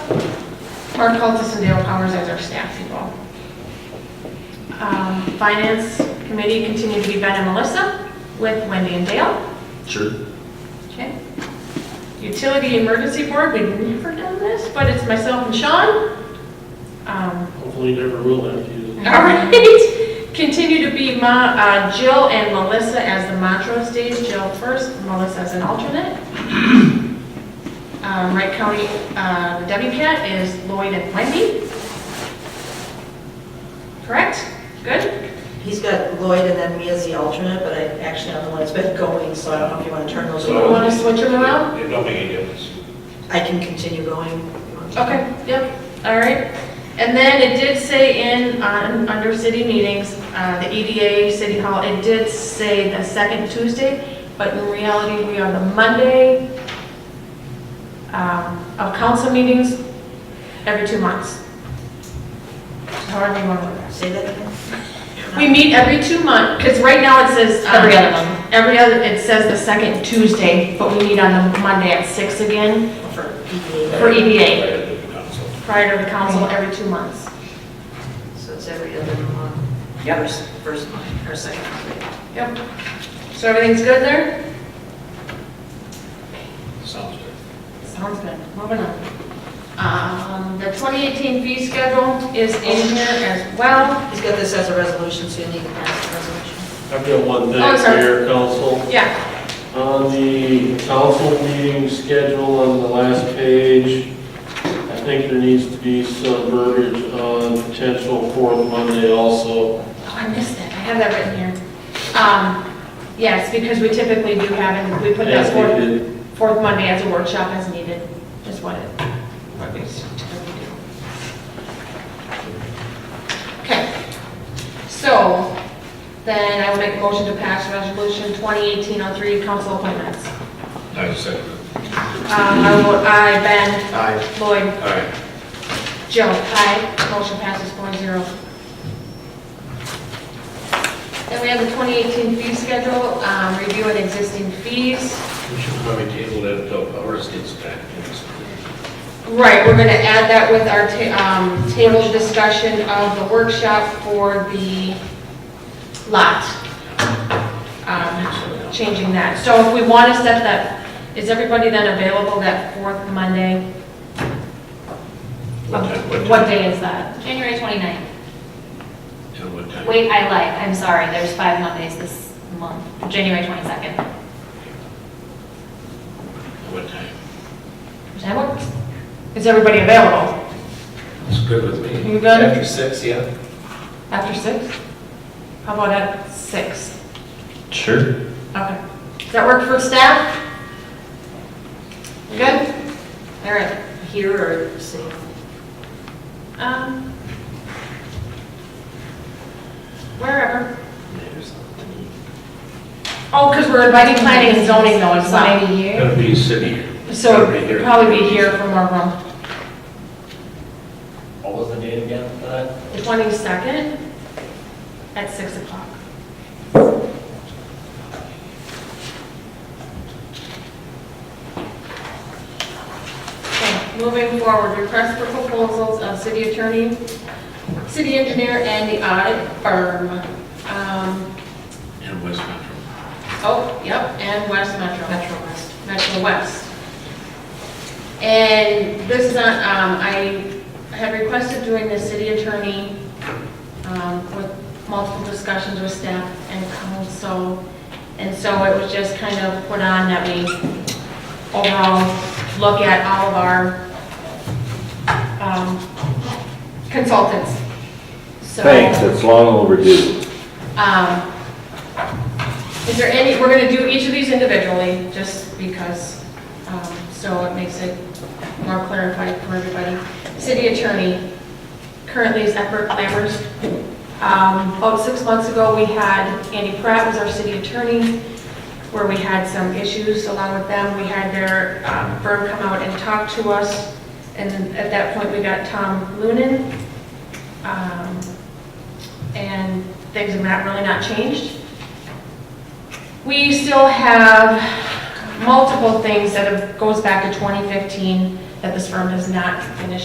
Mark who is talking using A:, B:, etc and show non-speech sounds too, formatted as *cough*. A: Mark Cultus and Dale Powers as our staff people. Um, Finance Committee continued to be Ben and Melissa with Wendy and Dale.
B: Sure.
A: Okay. Utility Emergency Board, we've never done this, but it's myself and Sean. Um,
C: Hopefully you never will have to
A: *laughs*
C: use
A: All
C: it.
A: right. Continue to be Ma- uh, Jill and Melissa as the Montrose days, Jill first, Melissa as an alternate. Um, Wright County uh, WCAT is Lloyd and Wendy. Correct? Good?
D: He's got Lloyd and then me as the alternate, but I actually am the one that's been going, so I don't know if you want to turn those
A: You
E: So-
D: over.
A: want to switch them around?
E: It don't make any difference.
D: I can continue going. if you want to.
A: Okay, yep, all right. And then it did say in, on, under city meetings, uh, the EDA, City Hall, it did say the second Tuesday, but in reality, we are the Monday um, of council meetings every two months. However you want to. do
D: Say that again.
A: that. We meet every two months, because right now it says. um,
F: Every other month.
A: Every other, it says the second Tuesday, but we meet on the Monday at six again
D: For PDA.
A: for E EDA,
E: Right, it'll be done, so.
A: prior to the council every two months.
D: So it's every other month.
A: Yep.
D: First- First month, or second month.
A: Yep. So everything's good there?
E: Sounds good.
A: Sounds good. Moving on. Um, The 2018 fee schedule is in here as well.
D: He's got this as a resolution, so you need to pass the resolution.
C: I've got one
A: Oh, I'm
C: thing,
A: sorry.
C: Mayor, Council.
A: Yeah.
C: On the council meeting schedule on the last page, I think there needs to be some verbiage on potential fourth Monday also.
A: Oh, I missed that. I have that written here. Um, Yes, because we typically do have, and we put
C: as
A: that fourth,
C: needed.
A: fourth Monday as a workshop as needed, is what it, what we typically do. Okay. So then I will make a motion to pass resolution 2018-03, council appointments.
E: I second
A: Um, I vote aye, Ben.
B: Aye.
A: Lloyd.
E: All right,
A: Joe. Aye. Motion passes four zero. Then we have the 2018 fee schedule, um, review and existing fees.
E: we should probably table that until ours gets back.
A: Right, we're gonna add that with our, ta- um, table discussion of the workshop for the lot. Um, changing that. So if we want to set that, is everybody then available that fourth Monday?
E: What time- what
A: Uh, What
E: time-
A: day is that?
F: January 29th.
E: Till what time?
F: Wait, I lied, I'm sorry, there's five Mondays this month, January 22nd,
E: What time?
F: which I worked.
A: Is everybody available?
E: It's good with me.
A: You good?
B: six, yeah.
A: After six? How about at six?
B: Sure.
A: Okay. Does that work for staff? Good? All right.
D: Here or city?
A: Um. Wherever. Oh, because we're inviting planning and zoning though, it's not maybe here.
E: Gotta be city.
A: So
E: Gotta be
A: it'd
E: here.
A: probably be here from our room.
G: What was the date again for that?
A: The 22nd at 6 o'clock. Okay, Moving forward, request for proposals of city attorney, city engineer, and the audit firm. Um,
E: In West Metro.
A: Oh, yep, and West Metro.
D: Metro West.
A: Metro West. And this is not, um, I had requested doing the city attorney, um, with multiple discussions with staff and council. And so it was just kind of put on that we overall look at all of our, um, consultants. So,
H: Thanks, it's long overdue.
A: Um, is there any, we're gonna do each of these individually, just because, um, so it makes it more clarified for everybody. City attorney currently is Edward Lammers. Um, about six months ago, we had Andy Pratt was our city attorney, where we had some issues along with them. We had their um, firm come out and talk to us, and then at that point, we got Tom Lunan. Um, and things have not, really not changed. We still have multiple things that have- goes back to 2015 that this firm has not finished